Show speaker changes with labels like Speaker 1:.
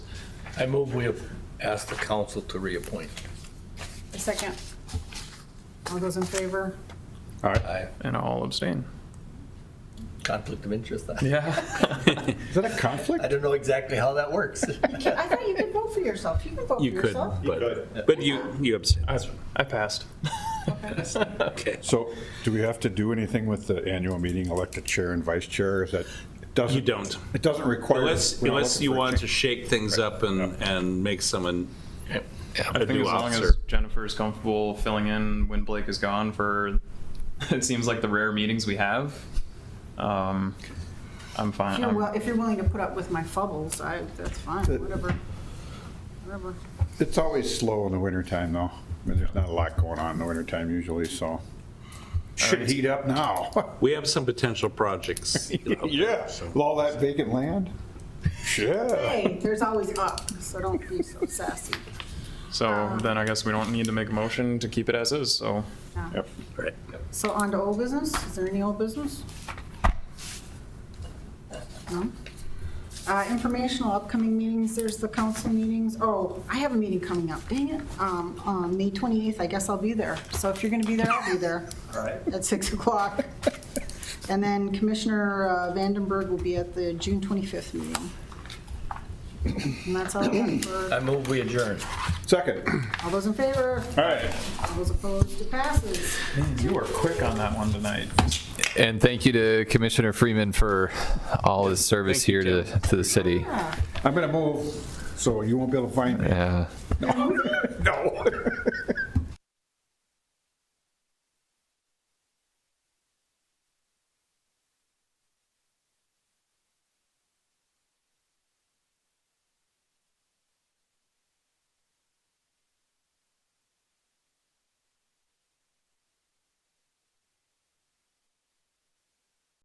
Speaker 1: I move we have asked the council to reappoint.
Speaker 2: A second. All those in favor?
Speaker 1: I,
Speaker 3: And I'll abstain.
Speaker 1: conflict of interest. I
Speaker 3: Yeah.
Speaker 4: Is that a conflict?
Speaker 1: don't know exactly how that works.
Speaker 2: I thought you could vote for yourself. You could vote for
Speaker 5: You could,
Speaker 2: yourself.
Speaker 5: but, but you, you abstain.
Speaker 3: I, I passed.
Speaker 5: Okay.
Speaker 4: So do we have to do anything with the annual meeting, elect a chair and vice chair? Is that, it doesn't?
Speaker 5: You don't.
Speaker 4: It doesn't require.
Speaker 5: Unless,
Speaker 4: we're not
Speaker 5: unless
Speaker 4: looking
Speaker 5: you
Speaker 4: for a
Speaker 5: want to
Speaker 4: change.
Speaker 5: shake things up and, and make someone
Speaker 3: I
Speaker 5: a
Speaker 3: think
Speaker 5: new
Speaker 3: as long
Speaker 5: officer.
Speaker 3: as Jennifer is comfortable filling in when Blake is gone for, it seems like the rare meetings we have, um, I'm
Speaker 2: If
Speaker 3: fine.
Speaker 2: you're,
Speaker 3: I'm-
Speaker 2: wi- if you're willing to put up with my fumbles, I, that's fine, whatever. Whatever.
Speaker 4: It's always slow in the wintertime, though. I mean, there's not a lot going on in the wintertime usually, so. Should heat up now.
Speaker 5: We have some potential projects.
Speaker 4: Yeah, with all that vacant land? Yeah.
Speaker 2: Hey, there's always up, so don't be so sassy.
Speaker 3: So then I guess we don't need to make a motion to keep it as is, so.
Speaker 4: Yep.
Speaker 5: Right.
Speaker 2: So on to old business, is there any old business? No? Uh, informational upcoming meetings, there's the council meetings, oh, I have a meeting coming up, dang it, um, on May 28th, I guess I'll be there, so if you're gonna be there, I'll be there. At 6 o'clock. And then Commissioner uh, Vandenberg will be at the June 25th meeting. And that's all I have for,
Speaker 1: I move we adjourn.
Speaker 4: Second.
Speaker 2: all those in favor,
Speaker 4: All right.
Speaker 2: all those opposed, it passes.
Speaker 3: You were quick on that one tonight.
Speaker 6: And thank you to Commissioner Freeman for all his service
Speaker 5: Thank you,
Speaker 6: here to,
Speaker 5: Jim.
Speaker 6: to the city.
Speaker 2: Yeah.
Speaker 4: I'm going to move, so you won't be able to find me.
Speaker 6: Yeah.
Speaker 4: No.